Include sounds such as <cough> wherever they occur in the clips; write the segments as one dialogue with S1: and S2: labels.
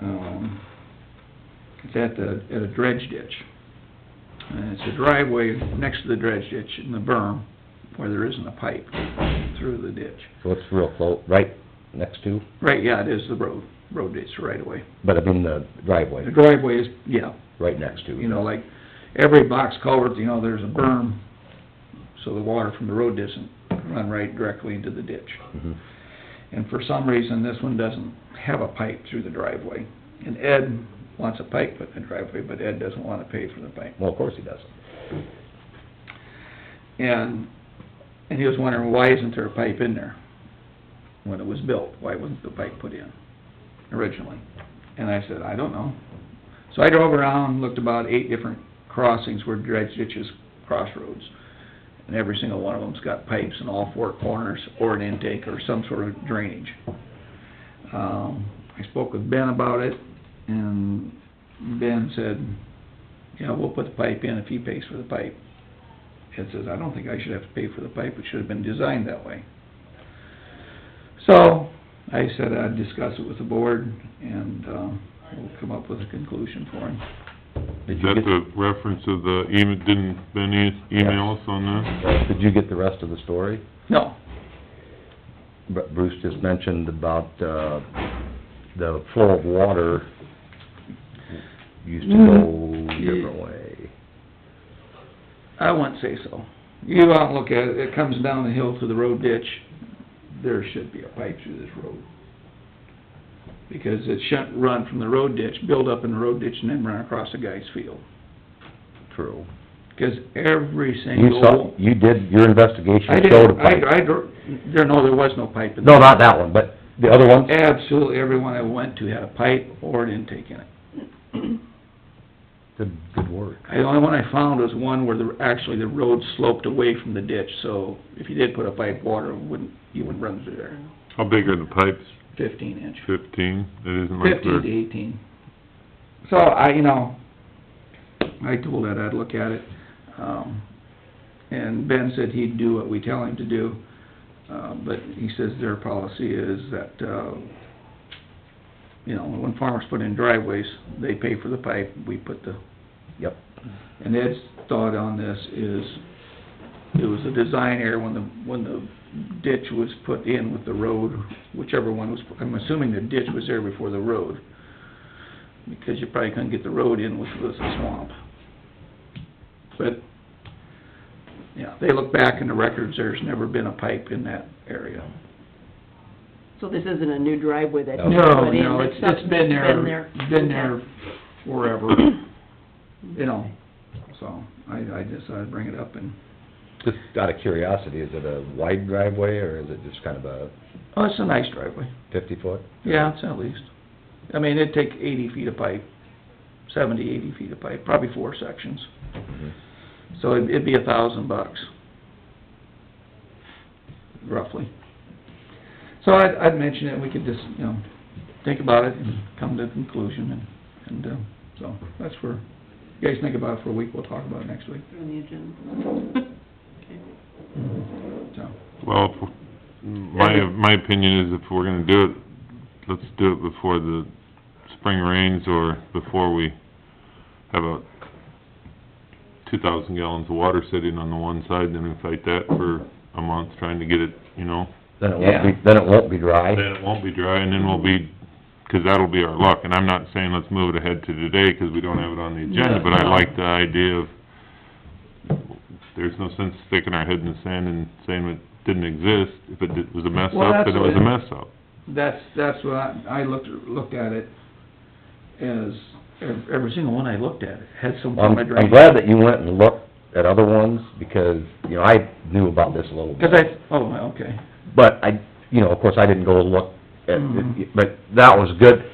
S1: um, It's at the, at a dredge ditch. And it's a driveway next to the dredge ditch in the berm where there isn't a pipe through the ditch.
S2: So it's real close, right next to,
S1: Right, yeah, it is the road, road ditch right away.
S2: but I mean the driveway,
S1: The driveway is, yeah,
S2: right next to.
S1: you know, like every box culvert, you know, there's a berm, so the water from the road doesn't run right directly into the ditch.
S2: Mhm.
S1: And for some reason, this one doesn't have a pipe through the driveway. And Ed wants a pipe put in the driveway, but Ed doesn't wanna pay for the pipe.
S2: Well, of course he doesn't.
S1: And, and he was wondering, why isn't there a pipe in there when it was built? Why wasn't the pipe put in originally? And I said, I don't know. So I drove around, looked about eight different crossings where dredge ditches, crossroads, and every single one of them's got pipes in all four corners, or an intake, or some sort of drainage. Um, I spoke with Ben about it, and Ben said, yeah, we'll put the pipe in if he pays for the pipe. Ed says, I don't think I should have to pay for the pipe, it should have been designed that way. So, I said I'd discuss it with the board, and, um, we'll come up with a conclusion for him.
S2: Did
S3: Is
S2: you
S3: that
S2: get,
S3: the reference of the email, didn't Ben e- email us on that?
S2: uh, did you get the rest of the story?
S1: No,
S2: Bru- Bruce just mentioned about, uh, the flow of water used to go
S1: Mm.
S2: different way.
S1: I wouldn't say so. You go out and look at it, it comes down the hill to the road ditch, there should be a pipe through this road. Because it shouldn't run from the road ditch, build up in the road ditch, and then run across a guy's field.
S2: True.
S1: Because every
S2: You
S1: single...
S2: saw, you did, your investigation
S1: I
S2: showed a
S1: didn't,
S2: pipe.
S1: I, I, dro- there, no, there was no pipe in
S2: No,
S1: there.
S2: not that one, but the other one?
S1: Absolutely, everyone I went to had a pipe or an intake in it.
S2: Good, good work.
S1: The only one I found was one where the, actually the road sloped away from the ditch, so if you did put a pipe, water wouldn't, you wouldn't run through there.
S3: How big are the pipes?
S1: Fifteen inch,
S3: Fifteen? It isn't like
S1: fifteen to
S3: they're...
S1: eighteen. So I, you know, I told Ed I'd look at it, um, and Ben said he'd do what we tell him to do. Uh, but he says their policy is that, uh, you know, when farmers put in driveways, they pay for the pipe, we put the...
S2: Yep.
S1: And Ed's thought on this is, it was a design error when the, when the ditch was put in with the road, whichever one was, I'm assuming the ditch was there before the road, because you probably couldn't get the road in, which was a swamp. But, yeah, they look back in the records, there's never been a pipe in that area.
S4: So this isn't a new driveway that
S2: No.
S4: you
S1: No,
S4: put in?
S1: no, it's, it's been there, been there <coughs> forever,
S4: <clears throat>
S1: you know, so I, I just, I'd bring it up and,
S2: Just out of curiosity, is it a wide driveway or is it just kind of a
S1: oh, it's a nice driveway.
S2: fifty foot?
S1: Yeah, it's at least. I mean, it'd take eighty feet of pipe, seventy, eighty feet of pipe, probably four sections.
S2: Mhm.
S1: So it'd, it'd be a thousand bucks. Roughly. So I'd, I'd mention it, we could just, you know, think about it and come to a conclusion and, and, uh, so that's where, you guys think about it for a week, we'll talk about it next week,
S4: On the agenda. <laughs> Okay.
S1: so.
S3: Well, if- my, my opinion is if we're gonna do it, let's do it before the spring rains or before we have a two thousand gallons of water sitting on the one side, then we fight that for a month trying to get it, you know?
S2: Then it won't be, then it won't be dry.
S3: Then it won't be dry, and then we'll be, 'cause that'll be our luck, and I'm not saying let's move it ahead to today, 'cause we don't have it on the agenda, but I like the idea of, there's no sense sticking our head in the sand and saying it didn't exist, if it did- was a mess
S1: Well,
S3: up, then it was a
S1: that's-
S3: mess up.
S1: That's, that's what I, I looked, looked at it as, ev- every single one I looked at had some
S2: I'm,
S1: form of
S2: I'm
S1: drainage.
S2: glad that you went and looked at other ones because, you know, I knew about this a little bit.
S1: Cause I, oh, okay.
S2: But I, you know, of course, I didn't go look at,
S4: Mm-hmm.
S1: Mhm.
S2: but that was good.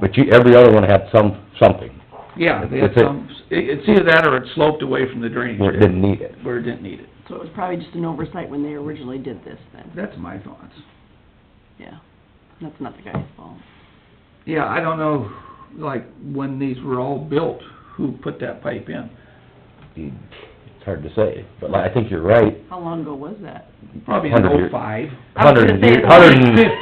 S2: But you, every other one had some, something
S1: Yeah, they had
S2: That's it.
S1: some, it- it's either that or it sloped away from the drainage.
S2: where it didn't need it.
S1: Where it didn't need it.
S4: So it was probably just an oversight when they originally did this then,
S1: That's my thoughts.
S4: yeah. That's not the guy's fault.
S1: Yeah, I don't know, like, when these were all built, who put that pipe in?
S2: It's hard to say, but I think you're right.
S4: How long ago was that?
S1: Probably in
S2: 100 years.
S1: oh-five.
S4: I was gonna
S2: Hundred and
S4: say
S2: ye-
S4: it's
S2: hundred and-
S1: Fifty